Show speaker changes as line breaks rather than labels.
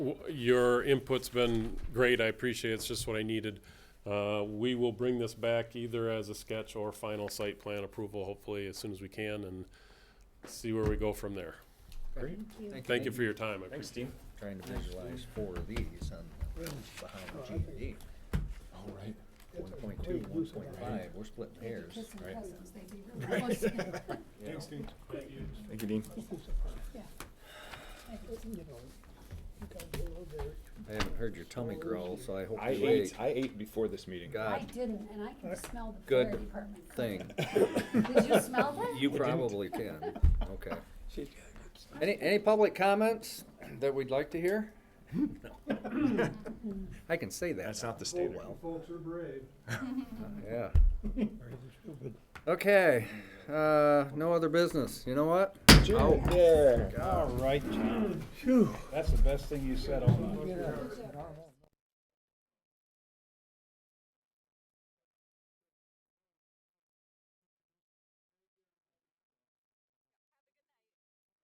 W- Your input's been great, I appreciate it, it's just what I needed. Uh, We will bring this back either as a sketch or final site plan approval, hopefully as soon as we can, and see where we go from there. Thank you for your time, I appreciate it.
Thanks, Dean.
Trying to visualize four of these on, behind G and D.
All right.
One point two, one point five, we're splitting hairs.
Kissing cousins, they'd be really close.
Thanks, Dean. Thank you, Dean.
Yeah.
I haven't heard your tummy growl, so I hope
I
you ate.
ate, I ate before this meeting.
I
God
didn't, and I can smell the
Good
fire department. coming.
thing,
Did you smell that?
you probably can, okay. Any, any public comments that we'd like to hear? I can say that
That's
now.
not
Oh,
the standard.
Folks are brave.
Yeah. Okay, uh, no other business. You know what?
Oh.
Jim, there. All right, John. That's the best thing you said all night.